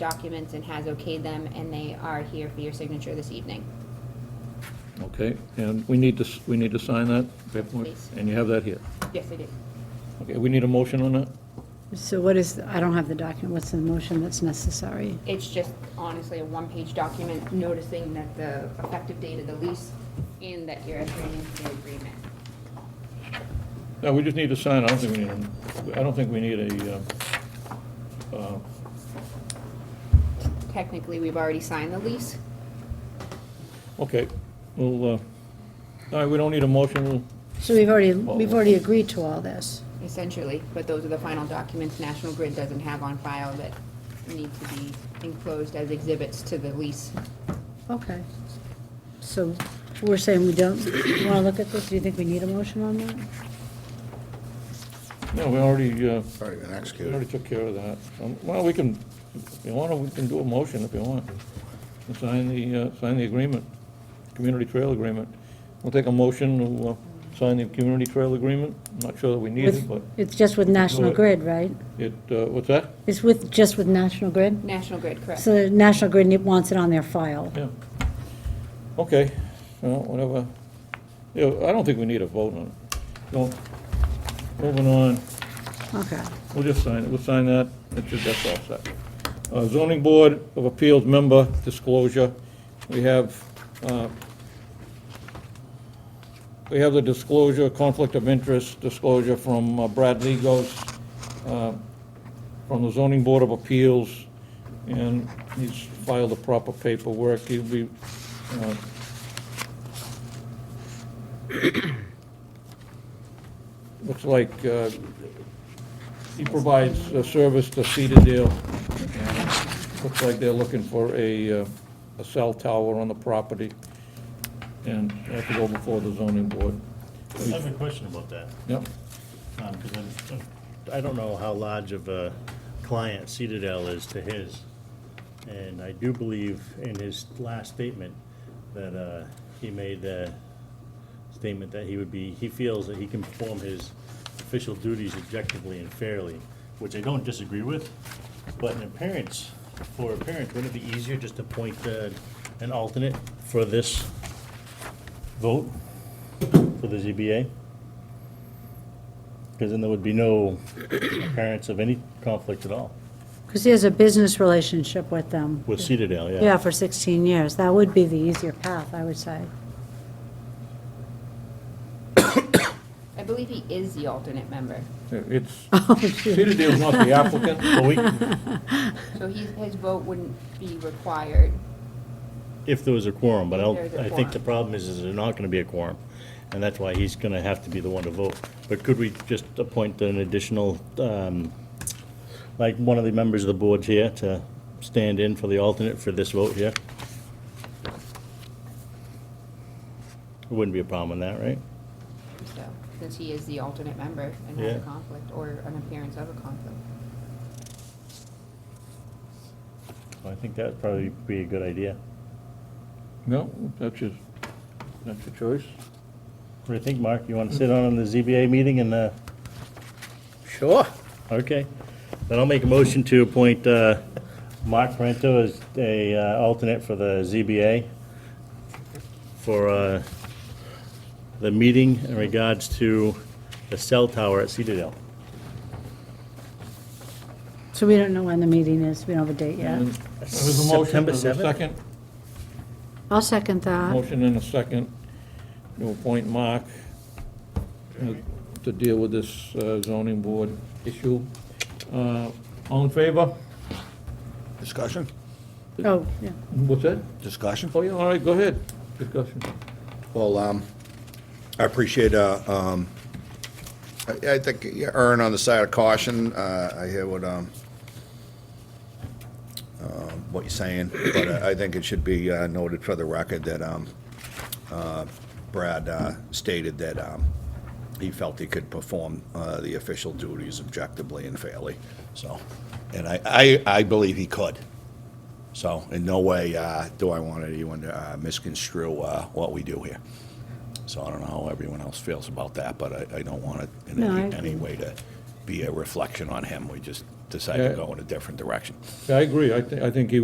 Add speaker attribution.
Speaker 1: documents and has okayed them, and they are here for your signature this evening.
Speaker 2: Okay, and we need to, s- we need to sign that paperwork,
Speaker 1: Please.
Speaker 2: and you have that here.
Speaker 1: Yes, I did.
Speaker 2: Okay, we need a motion on that?
Speaker 3: So what is, I don't have the document, what's the motion that's necessary?
Speaker 1: It's just honestly a one-page document noticing that the effective date of the lease and that you're entering into the agreement.
Speaker 2: No, we just need to sign, I don't think we need, a- I don't think we need a, um, uh,
Speaker 1: Technically, we've already signed the lease.
Speaker 2: okay, well, uh, all right, we don't need a motion, we'll-
Speaker 3: So we've already, we've already agreed to all this.
Speaker 1: essentially, but those are the final documents National Grid doesn't have on file that need to be enclosed as exhibits to the lease.
Speaker 3: Okay. So we're saying we don't, you want to look at this? Do you think we need a motion on that?
Speaker 2: no, we already, uh,
Speaker 4: Already been
Speaker 2: we already
Speaker 4: executed.
Speaker 2: took care of that. Um, Well, we can, if you want, we can do a motion if you want, and sign the, uh, sign the agreement, community trail agreement. We'll take a motion to uh, sign the community trail agreement, I'm not sure that we need it,
Speaker 3: With-
Speaker 2: but
Speaker 3: It's just with National
Speaker 2: it.
Speaker 3: Grid, right?
Speaker 2: it, uh, what's that?
Speaker 3: It's with, just with National Grid?
Speaker 1: National Grid, correct?
Speaker 3: So National Grid ne- wants it on their file.
Speaker 2: Yeah. Okay, well, whatever. Yeah, I don't think we need a vote on it. So, moving on,
Speaker 3: Okay.
Speaker 2: we'll just sign it, we'll sign that, that's just, that's all set. Uh, zoning board of appeals member disclosure, we have, uh, we have the disclosure, conflict of interest disclosure from uh, Brad Legos, uh, from the zoning board of appeals, and he's filed the proper paperwork, he'll be, uh, looks like, uh, he provides a service to Cedardale, and looks like they're looking for a, uh, a cell tower on the property, and have to go before the zoning board.
Speaker 5: I have a question about that,
Speaker 2: Yep,
Speaker 5: because I'm, I'm- I don't know how large of a client Citadel is to his. And I do believe in his last statement that uh, he made the statement that he would be, he feels that he can perform his official duties objectively and fairly, which I don't disagree with. But in appearance, for appearance, wouldn't it be easier just to appoint uh, an alternate for this vote, for the ZBA? Because then there would be no appearance of any conflict at all
Speaker 3: Because he has a business relationship with them.
Speaker 5: with Cedardale, yeah.
Speaker 3: Yeah, for 16 years. That would be the easier path, I would say.
Speaker 1: I believe he is the alternate member.
Speaker 2: it's,
Speaker 3: Oh, shoot.
Speaker 2: Cedardale's not the applicant,
Speaker 5: But we,
Speaker 1: So he, his vote wouldn't be required.
Speaker 5: if there was a quorum, but I don't,
Speaker 1: There's a
Speaker 5: I think the
Speaker 1: quorum.
Speaker 5: problem is, is there's not gonna be a quorum. And that's why he's gonna have to be the one to vote. But could we just appoint an additional, um, like, one of the members of the board here to stand in for the alternate for this vote here? There Wouldn't be a problem with that, right?
Speaker 1: So, since he is the alternate member and has a
Speaker 5: Yeah.
Speaker 1: conflict or an appearance of a conflict.
Speaker 5: I think that'd probably be a good idea.
Speaker 2: no, that's your, that's your choice.
Speaker 5: What do you think, Mark? You wanna sit on the ZBA meeting and, uh,
Speaker 4: Sure.
Speaker 5: Okay, then I'll make a motion to appoint uh, Mark Parento as a uh, alternate for the ZBA for uh, the meeting in regards to the cell tower at Cedardale.
Speaker 3: So we don't know when the meeting is. We don't have a date yet.
Speaker 2: And There's a motion,
Speaker 5: September
Speaker 2: there's a
Speaker 5: 7th?
Speaker 2: second,
Speaker 3: I'll second that.
Speaker 2: motion and a second to appoint Mark uh, to deal with this uh, zoning board issue. Uh, All in favor?
Speaker 4: Discussion?
Speaker 3: Oh, yeah.
Speaker 2: What's that?
Speaker 4: Discussion?
Speaker 2: Oh, yeah, all right, go ahead, discussion.
Speaker 4: Well, um, I appreciate, uh, um, I, I think you erring on the side of caution. Uh, I hear what, um, um, what you're saying, but I I think it should be uh, noted for the record that, um, uh, Brad, uh, stated that, um, he felt he could perform, uh, the official duties objectively and fairly, so. And I, I, I believe he could. So in no way uh, do I want anyone to uh, misconstrue uh, what we do here. So I don't know how everyone else feels about that, but I, I don't want it in
Speaker 3: No, I
Speaker 4: any,
Speaker 3: agree.
Speaker 4: any way to be a reflection on him. We just decide to
Speaker 2: Yeah.
Speaker 4: go in a different direction.
Speaker 2: I agree, I thi- I think he